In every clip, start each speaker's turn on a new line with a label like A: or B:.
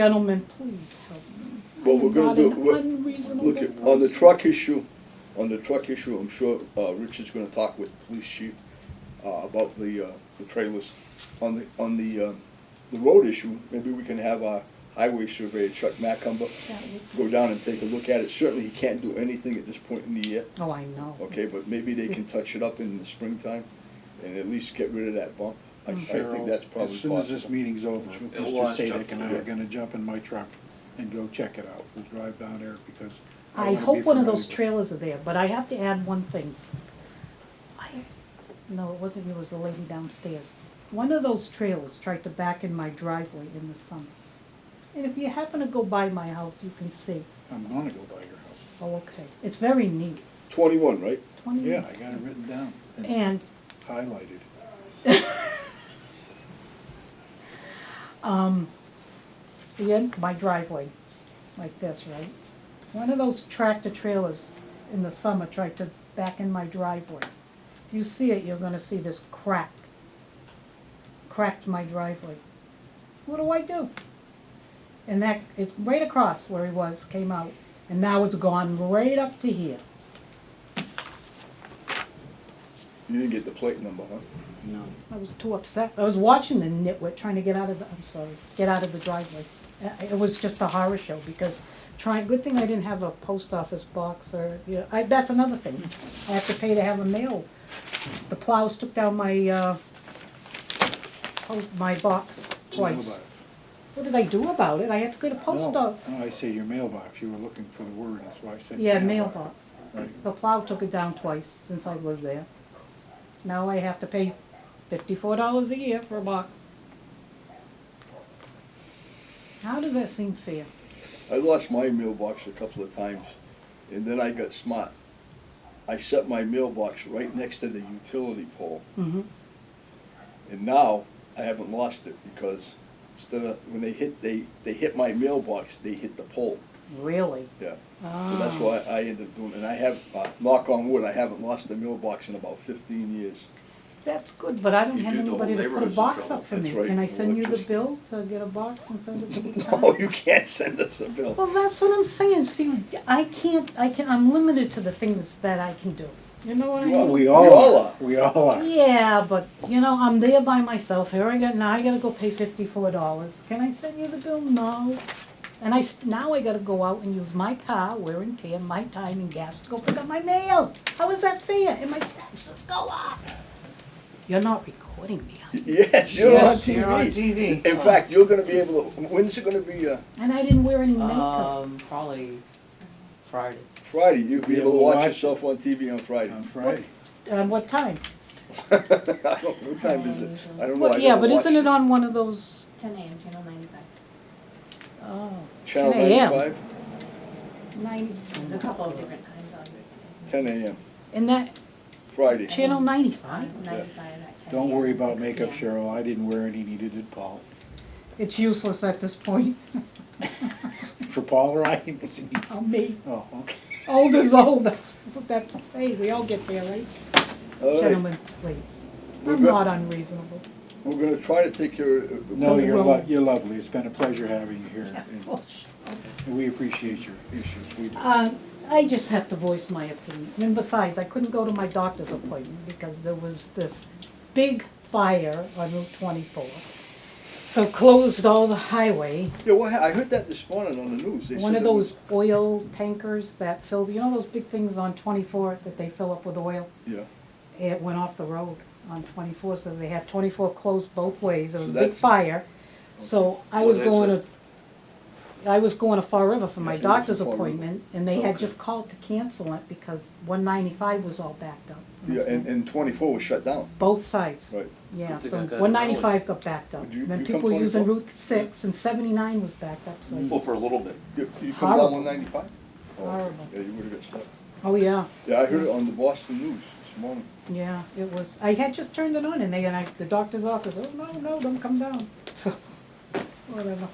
A: Gentlemen, please help me.
B: What we're gonna do,
A: Not an
B: we're-
A: unreasonable
B: Look, on the truck issue, on the truck issue, I'm sure, uh, Richard's gonna talk with the police chief, uh, about the, uh, the trailers. On the, on the, uh, the road issue, maybe we can have our highway surveyor, Chuck Macumber,
A: That would-
B: go down and take a look at it. Certainly, he can't do anything at this point in the year,
A: Oh, I know.
B: okay, but maybe they can touch it up in the springtime and at least get rid of that bump. I, I think
C: Hmm. Cheryl,
B: that's probably
C: as soon as this
B: possible.
C: meeting's over, Mr.
D: was
C: Sadek and I are
B: jumping.
C: gonna jump in my truck and go check it out. We'll drive down there because.
A: I
C: wanna be
A: hope one of
C: familiar
A: those
C: with it.
A: trailers are there, but I have to add one thing. I, no, it wasn't you, it was the lady downstairs. One of those trailers tried to back in my driveway in the summer. And if you happen to go by my house, you can see,
C: I'm gonna go by your house.
A: oh, okay, it's very neat,
B: Twenty-one, right?
A: twenty.
C: Yeah, I got it written down and
A: And
C: highlighted.
A: um, the end, my driveway, like this, right? One of those tractor trailers in the summer tried to back in my driveway. If you see it, you're gonna see this crack. Cracked my driveway. What do I do? And that, it's right across where he was, came out, and now it's gone right up to here.
B: You didn't get the plate number, huh?
C: No.
A: I was too upset. I was watching the nitwit trying to get out of the, I'm sorry, get out of the driveway. Uh, It was just a horror show because trying, good thing I didn't have a post office box or, you know, I, that's another thing. I have to pay to have a mail. The plows took down my, uh, post, my box twice. What did I do about it? I had to go to post
C: No,
A: office.
C: no, I say your mailbox. You were looking for the word, that's why I said.
A: Yeah, mailbox.
C: Right.
A: The plow took it down twice since I lived there. Now I have to pay fifty-four dollars a year for a box. How does that seem fair?
B: I lost my mailbox a couple of times, and then I got smart. I set my mailbox right next to the utility pole,
A: Mm-hmm.
B: and now I haven't lost it because instead of, when they hit, they, they hit my mailbox, they hit the pole,
A: Really?
B: yeah. So that's
A: Ah.
B: why I ended up doing, and I have, uh, knock on wood, I haven't lost a mailbox in about fifteen years.
A: That's good, but I don't
D: You
A: have
D: do the whole
A: anybody to put a
D: neighborhood's in
A: box
D: trouble.
A: up for
B: That's
A: me.
B: right,
A: Can I send you the
B: electricity.
A: bill to get a box and send it to the town?
B: No, you can't send us a bill.
A: Well, that's what I'm saying, see, I can't, I can, I'm limited to the things that I can do. You know what I mean?
B: Well,
C: We
B: We all
C: all
B: are.
C: are. We all are.
A: Yeah, but you know, I'm there by myself. Here I got now. I gotta go pay fifty-four dollars. Can I send you the bill? No. And I s- now I gotta go out and use my car, wear and tear, my time and gas to go pick up my mail. How is that fair? And my taxes go up. You're not recording me, are you?
B: Yes, you're on
E: Yes, you're on
B: TV.
E: TV.
B: In fact, you're gonna be able to, when's it gonna be, uh,
A: And I didn't wear any makeup.
E: Um, probably Friday.
B: Friday? You'll be
C: Yeah,
B: able to
C: we'll
B: watch
C: watch it.
B: yourself on TV on Friday.
C: On Friday.
A: Uh, what time?
B: I don't, what time is it? I don't know. I
A: Well, yeah,
B: never
A: but isn't
B: watched
A: it on one of those?
F: Ten AM, channel ninety-five.
A: Oh,
B: Channel
A: 10 a.m.?
B: 95?
A: ninety.
F: There's a couple of different times on there.
B: 10 a.m.,
A: And that
B: Friday.
A: channel ninety-five.
F: Ninety-five and at ten.
C: Don't worry
F: AM,
C: about
F: 6
C: makeup,
F: PM.
C: Cheryl. I didn't wear any, neither did Paul.
A: It's useless at this point.
C: For Paul or I, it's any,
A: I'll be.
C: oh, okay.
A: Old is old, that's, that's, hey, we all get there, right?
B: All right,
A: Gentlemen, please.
B: We're
A: I'm
B: good.
A: not unreasonable.
B: we're gonna try to take care of.
C: No,
A: Well,
C: you're
A: well-
C: lo- you're lovely. It's been a pleasure having you here. and- And we appreciate your issues. We do.
A: Uh, I just have to voice my opinion. And besides, I couldn't go to my doctor's appointment because there was this big fire on Route twenty-four. So closed all the highway.
B: Yeah, well, I heard that this morning on the news. They
A: One
B: said
A: of
B: it was-
A: those oil tankers that fill, you know those big things on twenty-four that they fill up with oil?
B: Yeah,
A: it went off the road on twenty-four, so they had twenty-four closed both ways, it was
B: So
A: a big
B: that's-
A: fire. So I
D: Well,
A: was
D: that's
A: going
D: it.
A: to, I was going to Far River for my
B: Yeah, it was
A: doctor's
B: in Fall River.
A: appointment, and they had
B: Okay.
A: just called to cancel it because one ninety-five was all backed up. you know
B: yeah,
A: what I'm
B: and,
A: saying?
B: and twenty-four was shut down,
A: Both sides,
B: right.
A: yeah,
D: Good thing
A: so
D: I got it
A: one ninety-five got backed up,
B: Would you-
A: then
B: you come Mm.
A: people were using
B: 24?
A: Route six, and seventy-nine was backed up, so I
D: Well,
A: said,
D: for a little bit.
B: You you come down
A: Horrible.
B: one ninety-five? Oh,
A: Horrible.
B: Yeah, you would've got stuck.
A: oh yeah.
B: Yeah, I heard it on the Boston News this morning.
A: Yeah, it was, I had just turned it on and they, and I, the doctor's office, oh, no, no, don't come down, so, whatever.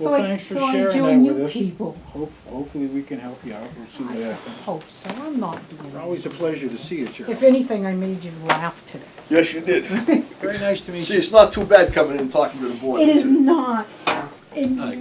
A: So
C: Well,
A: I-
C: thanks for
A: so I
C: sharing
A: join
C: that with
A: you
C: us.
A: People,
C: Hope- Hopefully, we can help you out. We'll see what
A: I
C: happens.
A: hope so, I'm not being.
C: It's always a pleasure to see you,
A: If
C: Cheryl.
A: anything, I made you laugh today.
B: Yes, you did.
C: Very nice to meet
B: See,
C: you.
B: it's not too bad coming in and talking to the board.
A: It is
B: it?
A: not,
G: And
H: Aye.